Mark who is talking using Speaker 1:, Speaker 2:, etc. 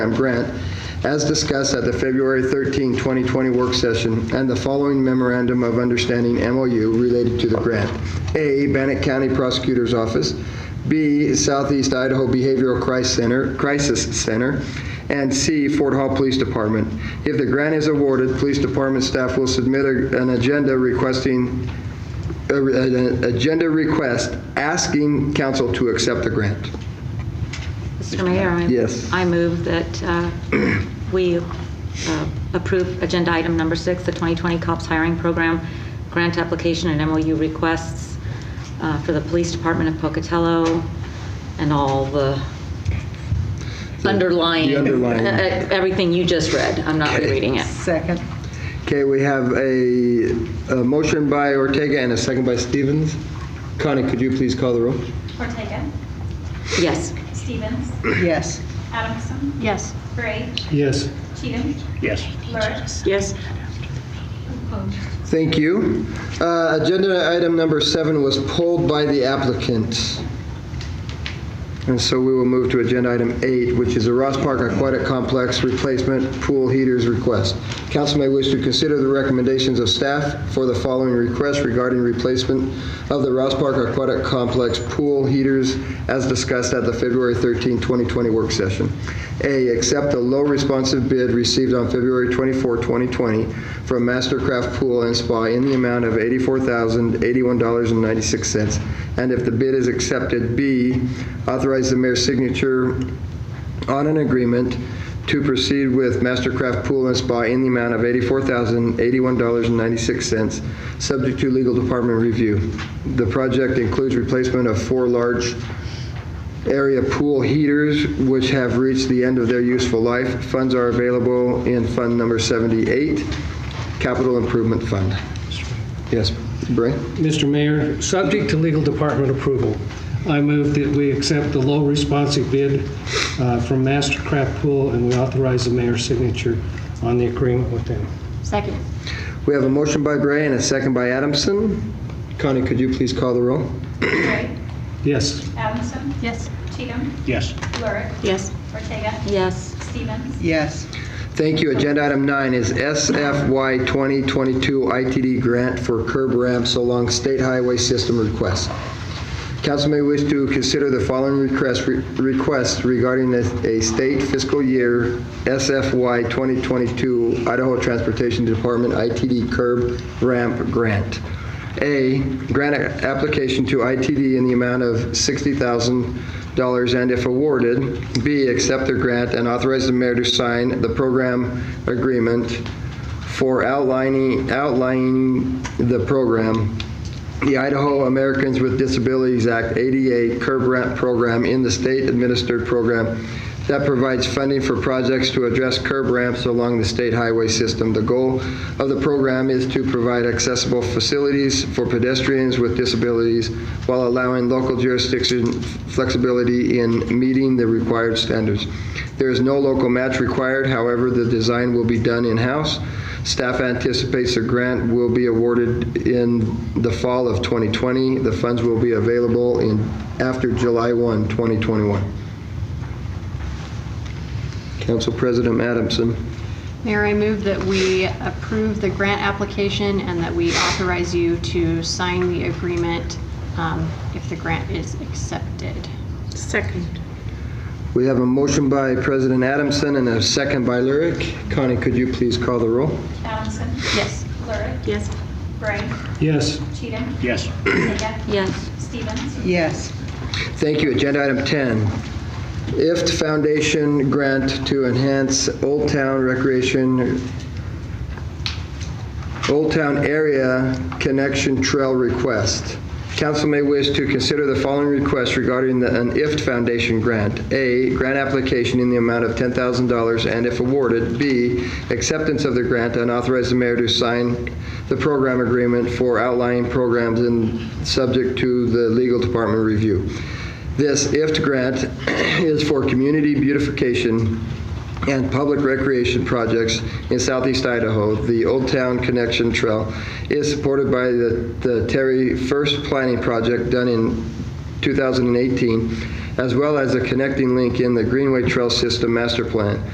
Speaker 1: and Brent, as discussed at the February 13, 2020 work session, and the following memorandum of understanding MOU related to the grant. A, Bannock County Prosecutor's Office, B, Southeast Idaho Behavioral Crisis Center, Crisis Center, and C, Fort Hall Police Department. If the grant is awarded, police department staff will submit a- an agenda requesting, a- an agenda request asking council to accept the grant.
Speaker 2: Mr. Mayor? I-
Speaker 1: Yes.
Speaker 2: I move that uh, we uh, approve Agenda Item Number Six, the 2020 COPS Hiring Program Grant Application and MOU Requests uh, for the Police Department of Pocatello and all the underlying...
Speaker 1: The underlying.
Speaker 2: uh, Everything you just read. I'm not
Speaker 1: Okay.
Speaker 2: rereading it.
Speaker 3: Second.
Speaker 1: Okay, we have a, a motion by Ortega and a second by Stevens. Connie, could you please call the roll?
Speaker 4: Ortega.
Speaker 2: Yes.
Speaker 4: Stevens.
Speaker 3: Yes.
Speaker 4: Adamson.
Speaker 2: Yes.
Speaker 4: Gray.
Speaker 5: Yes.
Speaker 4: Cheatham.
Speaker 5: Yes.
Speaker 4: Lurick.
Speaker 2: Yes.
Speaker 1: Thank you. Uh, Agenda item number seven was pulled by the applicant. And so we will move to agenda item eight, which is a Ross Park Aquatic Complex replacement pool heaters request. Council may wish to consider the recommendations of staff for the following request regarding replacement of the Ross Park Aquatic Complex pool heaters as discussed at the February 13, 2020 work session. A, accept the low responsive bid received on February 24, 2020 from Mastercraft Pool and Spa in the amount of $84,081.96. And if the bid is accepted, B, authorize the mayor's signature on an agreement to proceed with Mastercraft Pool and Spa in the amount of $84,081.96, subject to legal department review. The project includes replacement of four large area pool heaters, which have reached the end of their useful life. Funds are available in Fund Number 78, Capital Improvement Fund. Yes, Bray?
Speaker 5: Mr. Mayor, subject to legal department approval, I move that we accept the low responsive bid uh, from Mastercraft Pool, and we authorize the mayor's signature on the agreement with them.
Speaker 2: Second.
Speaker 1: We have a motion by Bray and a second by Adamson. Connie, could you please call the roll?
Speaker 4: Gray.
Speaker 5: Yes.
Speaker 4: Adamson.
Speaker 2: Yes.
Speaker 4: Cheatham.
Speaker 5: Yes.
Speaker 4: Lurick.
Speaker 2: Yes.
Speaker 4: Ortega.
Speaker 2: Yes.
Speaker 4: Stevens.
Speaker 3: Yes.
Speaker 1: Thank you. Agenda item nine is SFY 2022 ITD grant for curb ramps along state highway system request. Council may wish to consider the following request- requests regarding a a state fiscal year SFY 2022 Idaho Transportation Department ITD curb ramp grant. A, grant a- application to ITD in the amount of $60,000, and if awarded, B, accept the grant and authorize the mayor to sign the program agreement for outlining, outlining the program, the Idaho Americans with Disabilities Act 88 curb ramp program in the state-administered program that provides funding for projects to address curb ramps along the state highway system. The goal of the program is to provide accessible facilities for pedestrians with disabilities while allowing local jurisdiction flexibility in meeting the required standards. There is no local match required, however, the design will be done in-house. Staff anticipates the grant will be awarded in the fall of 2020. The funds will be available in, after July 1, 2021. Council President Adamson.
Speaker 6: Mayor, I move that we approve the grant application and that we authorize you to sign the agreement um, if the grant is accepted.
Speaker 1: We have a motion by President Adamson and a second by Lurick. Connie, could you please call the roll?
Speaker 4: Adamson.
Speaker 6: Yes.
Speaker 4: Lurick.
Speaker 2: Yes.
Speaker 4: Gray.
Speaker 5: Yes.
Speaker 4: Cheatham.
Speaker 5: Yes.
Speaker 4: Ortega.
Speaker 2: Yes.
Speaker 4: Stevens.
Speaker 3: Yes.
Speaker 1: Thank you. Agenda item 10, IFT Foundation grant to enhance Old Town Recreation, Old Town Area Connection Trail request. Council may wish to consider the following requests regarding the- an IFT Foundation grant. A, grant application in the amount of $10,000, and if awarded, B, acceptance of the grant and authorize the mayor to sign the program agreement for outlying programs and subject to the legal department review. This IFT grant is for community beautification and public recreation projects in southeast Idaho. The Old Town Connection Trail is supported by the the Terry First Planning Project done in 2018, as well as a connecting link in the Greenway Trail System Master Plan.